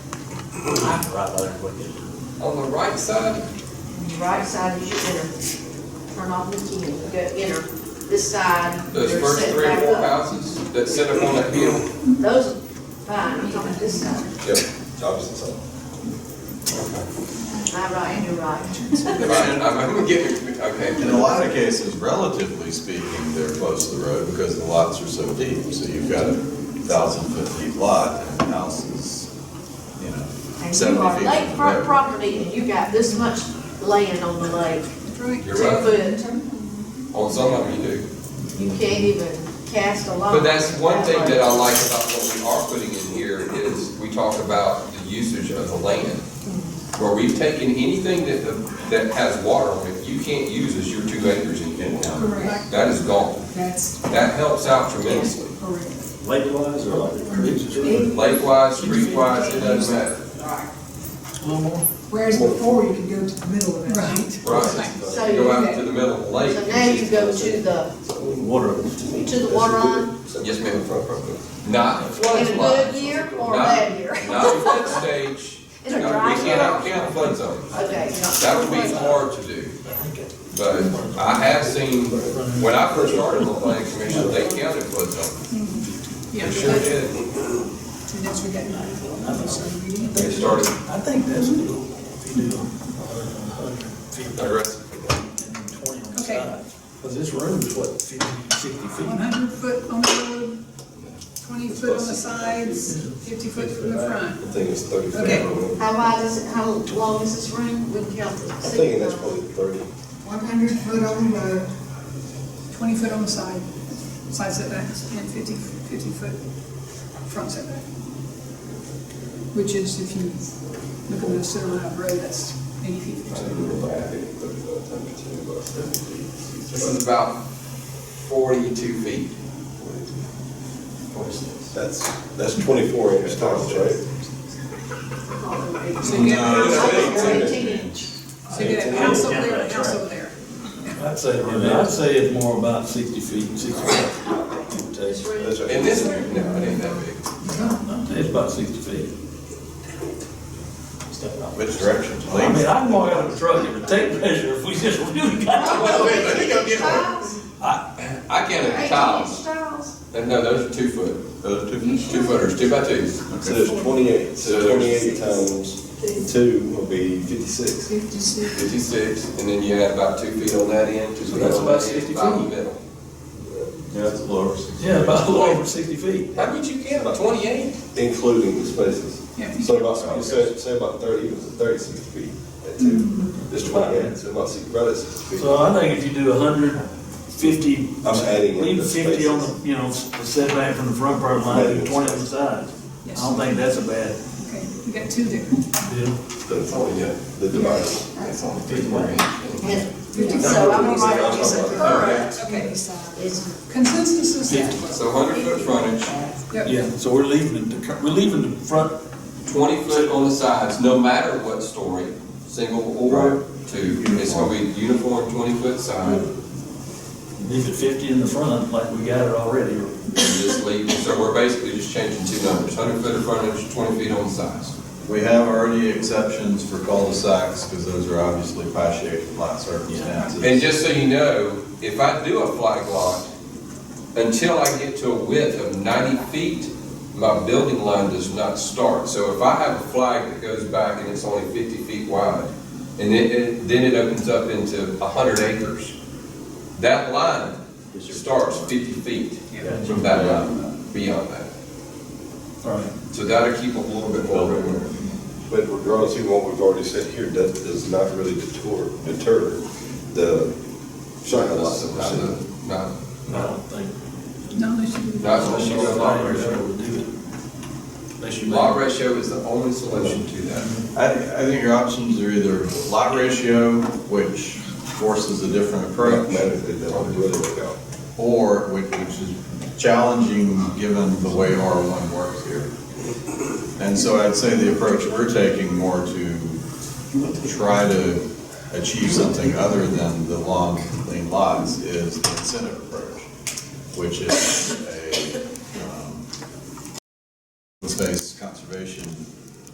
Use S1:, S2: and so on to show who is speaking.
S1: Right by there, quick.
S2: On the right side,
S3: Right side is your enter. Turn off the key and go enter. This side,
S2: those
S3: they're
S2: first
S3: set
S2: three or
S3: back
S2: four
S3: up.
S2: houses that sit up on that hill.
S3: Those, fine, I'm talking this side.
S4: Yep, Jobs and
S3: My right and your right.
S2: I'm, I'm gonna get, okay.
S4: In a lot of cases, relatively speaking, they're close to the road because the lots are so deep. So you've got a thousand foot deep lot and the house is, you know,
S3: And you are
S4: seventy feet from the
S3: lakefront
S4: road.
S3: property and you got this much land on the lake,
S2: You're
S3: ten
S2: right,
S3: foot,
S2: on some of them you do.
S3: you can't even cast a line.
S2: But that's one thing that
S3: way.
S2: I like about what we are putting in here is we talk about the usage of the land.
S3: Mm-hmm.
S2: Where we've taken anything that, the- that has water on it, you can't use as your two acres in Kent County.
S5: Correct.
S2: That is gone.
S5: That's
S2: That helps out tremendously.
S5: correct.
S1: Lake-wise or like creeks or something?
S2: Lake-wise, street-wise, it doesn't matter.
S5: Whereas before, you could go to the middle of it. Right.
S3: So
S2: Right,
S3: you-
S2: go out to the middle of the lake.
S3: So now you go to the,
S1: Water.
S3: to the water line
S2: Yes, ma'am. Not in
S3: in a good
S2: floodplain.
S3: year or a
S2: Not-
S3: bad year?
S2: Not in flood stage.
S3: In a
S2: No,
S3: dry
S2: We
S3: year.
S2: cannot count flood zones.
S3: Okay. you're not-
S2: That would be hard to do. But I have seen, when I first started the planning commission, they counted flood zones.
S5: Yeah.
S2: They sure did.
S5: And that's we got nine. So we need
S2: They
S5: those.
S2: started
S6: I think that's doable if you do a hundred feet
S2: aggressive.
S6: and twenty on the
S5: Okay.
S6: side. Cause this room is what, fifty, sixty
S5: One
S6: feet?
S5: hundred foot on the road, twenty foot on the sides, fifty foot from the front.
S4: I think it's thirty feet.
S5: Okay.
S3: How wide is it, how long is this room? We can count the.
S4: I'm thinking that's probably thirty.
S5: One hundred foot on the road, twenty foot on the side, side setbacks, and 50 50 foot front setback. Which is, if you look at the center line of the road, that's eighty feet.
S2: This is about forty-two feet.
S4: That's, that's twenty-four inch tall, right?
S5: So you get a house
S2: No,
S5: over
S2: it's
S5: there,
S3: Eighteen inch.
S5: so you get a house over there, and a house over there.
S6: I'd say, I'd say it's more about sixty feet, sixty-five.
S3: This room.
S4: That's right.
S2: In this room, no, it ain't that big.
S6: It's about sixty feet.
S4: Which direction?
S6: I mean, I can walk out of the truck and take measure if we just really got.
S2: Well, wait, let me go get one.
S3: Tiles,
S2: I counted the
S3: eighteen
S2: tiles.
S3: inch tiles.
S2: And no, those are two foot. Those are two. Two footers, two by twos.
S4: So there's twenty-eight, so twenty-eight times two will be fifty-six.
S5: Fifty-six.
S2: Fifty-six, and then you add about two feet on that end, two
S6: So
S2: feet on that
S6: that's
S2: end.
S6: about 60
S2: about
S6: feet.
S2: the middle.
S4: Yeah, it's a little over sixty.
S6: Yeah, about a little over sixty feet.
S2: How would you count, twenty-eight?
S4: Including the spaces.
S5: Yeah.
S4: So about, you said, say about thirty, it was thirty-six feet at two. It's twenty-eight, so about six, right at sixty feet.
S6: So uh, I think if you do a hundred fifty.
S4: I'm adding in the
S6: Leave fifty on
S4: spaces.
S6: the, you know, the setback from the front part line,
S4: Maybe.
S6: do twenty on the sides. I
S5: Yes.
S6: don't think that's a bad
S5: Okay, you got two there.
S6: deal.
S4: That's all, yeah. The device.
S3: And so I'm gonna write it as a current
S5: Okay,
S3: is
S5: consensus is that.
S2: So hundred foot frontage,
S5: Yep.
S6: Yeah, so we're leaving it, to cur- we're leaving the front
S2: twenty foot on the sides, no matter what story, single or two. It's gonna be uniform twenty foot side, and
S6: Leave it fifty in the front, like we got it already.
S2: just leave, so we're basically just changing two numbers, hundred foot of frontage, twenty feet on the sides.
S7: We have already exceptions for cul-de-sacs, because those are obviously pie-shaped lot circumstances.
S2: And just so you know, if I do a flag lot, until I get to a width of ninety feet, my building line does not start. So if I have a flag that goes back and it's only fifty feet wide, and it- it, then it opens up into hundred acres, that line starts fifty feet from that line, beyond that.
S6: All right.
S2: So that'll keep a little bit more room.
S4: But regardless of what we've already said here, that does not really deter, deter the shotgun lots that we're seeing.
S2: Not-
S6: I don't think.
S5: No, they should be.
S2: Not unless you go lot ratio.
S6: Would do it. Unless you
S2: Lot
S6: make-
S2: ratio is the only solution to that.
S7: I, I think your options are either lot ratio, which forces a different approach,
S4: Mathematically, that would really work out.
S7: or, which which is challenging given the way R1 works here. And so I'd say the approach we're taking more to try to achieve something other than the long, clean lots is the incentive approach, which is a, um, open space conservation